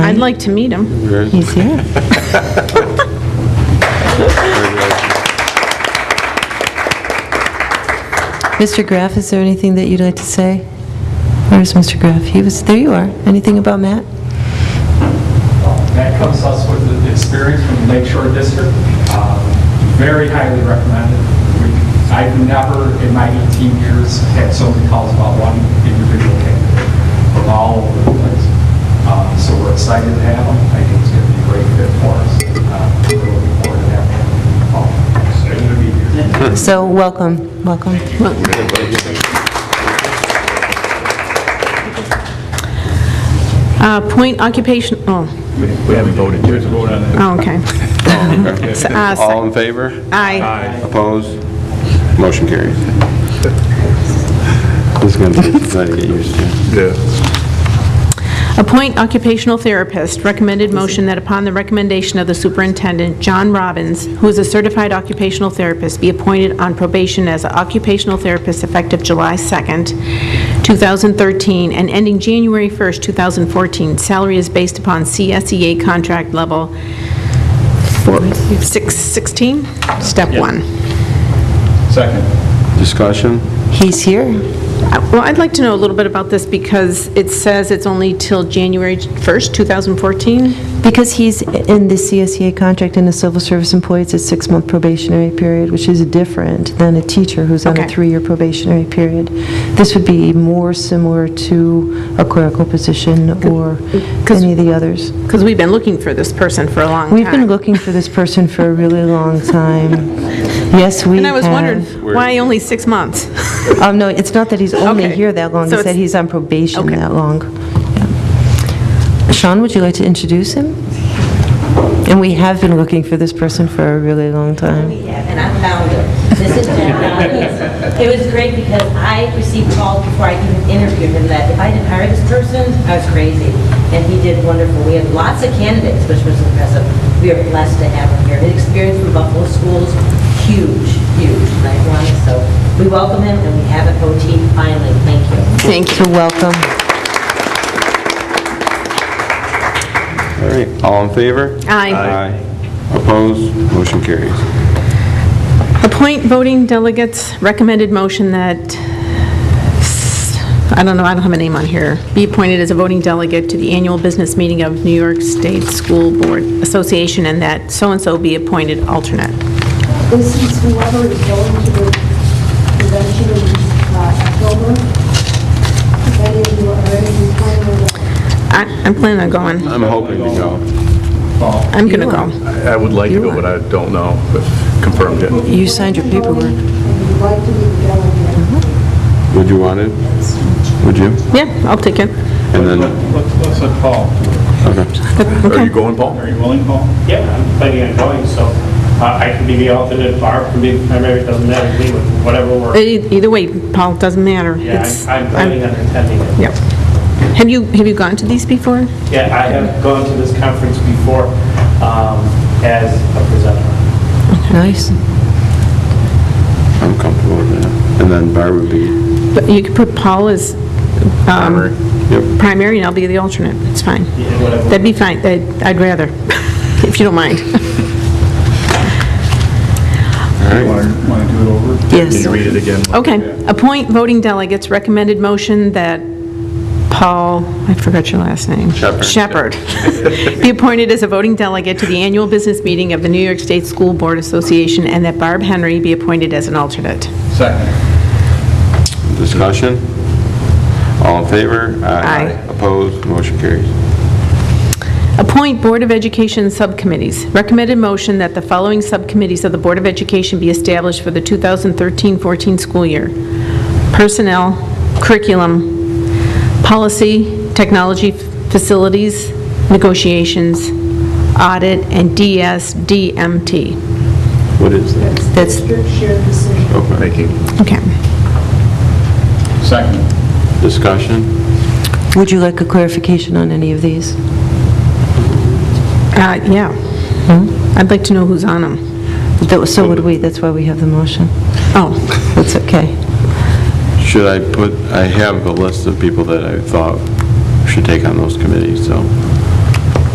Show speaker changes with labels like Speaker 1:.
Speaker 1: like to meet him.
Speaker 2: He's here. Mr. Graff, is there anything that you'd like to say? Where's Mr. Graff? He was, there you are. Anything about Matt?
Speaker 3: That comes us with the experience from the Lake Shore District. Uh, Very highly recommended. We- I've never in my 18 years had so many calls about one individual candidate from all over the place. Uh, So we're excited to have him. I think it's going to be a great fit for us. Uh, We're looking forward to having him. Oh, it's Good to be here.
Speaker 2: So, welcome, welcome.
Speaker 1: Uh, Point occupation, oh,
Speaker 4: We haven't voted yet.
Speaker 1: oh, okay. S- uh,
Speaker 5: All
Speaker 1: s-
Speaker 5: in favor?
Speaker 1: Aye.
Speaker 5: Opposed? Motion carries. This is going to take time to get used to.
Speaker 4: Yeah.
Speaker 1: Appoint occupational therapist. Recommended motion that upon the recommendation of the superintendent, John Robbins, who is a certified occupational therapist, be appointed on probation as an occupational therapist effective July 2nd, 2013, and ending January 1st, 2014. Salary is based upon CSEA contract level four- six- 16, step one.
Speaker 3: Second.
Speaker 5: Discussion?
Speaker 2: He's here.
Speaker 1: Uh, Well, I'd like to know a little bit about this because it says it's only till January 1st, 2014.
Speaker 2: Because he's in the CSEA contract and a civil service employee, it's a six-month probationary period, which is different than a teacher who's on a
Speaker 1: Okay.
Speaker 2: three-year probationary period. This would be more similar to a clerical position or any of the others.
Speaker 1: Because we've been looking for this person for a long time.
Speaker 2: We've been looking for this person for a really long time. Yes, we have.
Speaker 1: And I was wondering, why only six months?
Speaker 2: Um, no, it's not that he's only
Speaker 1: Okay.
Speaker 2: here that long,
Speaker 1: So
Speaker 2: it's that
Speaker 1: it's-
Speaker 2: he's on probation
Speaker 1: Okay.
Speaker 2: that long. Yeah. Sean, would you like to introduce him? And we have been looking for this person for a really long time.
Speaker 6: Yeah, and I found it. This is Jen Robbins. It was great because I received calls before I even interviewed him that if I didn't hire this person, I was crazy. And he did wonderful. We had lots of candidates, which was impressive. We are blessed to have him here. His experience from Buffalo schools, huge, huge, and I wanted, so we welcome him and we have an OT finally. Thank you.
Speaker 1: Thank
Speaker 2: So welcome.
Speaker 5: All right, all in favor?
Speaker 1: Aye.
Speaker 5: Aye. Opposed? Motion carries.
Speaker 1: Appoint voting delegates, recommended motion that, I don't know, I don't have a name on here, be appointed as a voting delegate to the annual business meeting of New York State School Board Association, and that so-and-so be appointed alternate.
Speaker 7: This is whoever is going to the convention in uh, October. If any of you are already planning on
Speaker 1: I- I'm planning on going.
Speaker 5: I'm hoping to go.
Speaker 1: I'm going to go.
Speaker 4: I would like to, but I don't know, but confirmed yet.
Speaker 2: You signed your
Speaker 7: voting,
Speaker 2: paperwork.
Speaker 7: And you'd like to be the delegate.
Speaker 5: Would you want it? Would you?
Speaker 1: Yeah, I'll take it.
Speaker 5: And then,
Speaker 8: What's the call?
Speaker 4: Are you going, Paul?
Speaker 8: Are you willing, Paul? Yeah, I'm planning on going, so uh, I can be the alternate, Barb can be the primary, it doesn't matter, we would- whatever works.
Speaker 1: E- Either way, Paul, it doesn't matter.
Speaker 8: Yeah,
Speaker 1: It's-
Speaker 8: I- I'm planning on attending it.
Speaker 1: Yep. Have you, have you gone to these before?
Speaker 8: Yeah, I have gone to this conference before um, as a presenter.
Speaker 2: Nice.
Speaker 5: I'm comfortable with that. And then Barb would be,
Speaker 1: But you could put Paul as um,
Speaker 5: yep,
Speaker 1: primary, and I'll be the alternate. It's fine.
Speaker 8: Yeah, whatever.
Speaker 1: That'd be fine. I'd I'd rather, if you don't mind.
Speaker 3: Want to do it over?
Speaker 2: Yes.
Speaker 4: Read it again.
Speaker 1: Okay. Appoint voting delegates. Recommended motion that Paul, I forgot your last name.
Speaker 5: Shepherd.
Speaker 1: Shepherd. Be appointed as a voting delegate to the annual business meeting of the New York State School Board Association, and that Barb Henry be appointed as an alternate.
Speaker 3: Second.
Speaker 5: discussion? All in favor?
Speaker 1: Aye.
Speaker 5: Opposed? Motion carries.
Speaker 1: Appoint Board of Education subcommittees. Recommended motion that the following subcommittees of the Board of Education be established for the 2013-14 school year. Personnel, curriculum, policy, technology facilities, negotiations, audit, and DSDMT.
Speaker 5: What is
Speaker 2: Mm-hmm.
Speaker 5: that?
Speaker 1: That's,
Speaker 7: District shared decision.
Speaker 4: Making.
Speaker 1: okay.
Speaker 3: Second.
Speaker 5: Discussion?
Speaker 2: Would you like a clarification on any of these?
Speaker 1: Uh, Yeah. I'd like to know who's on them.
Speaker 2: That was- So would we, that's why we have the motion.
Speaker 1: Oh,
Speaker 2: That's okay.
Speaker 5: Should I put, I have a list of people that I thought should take on those committees, so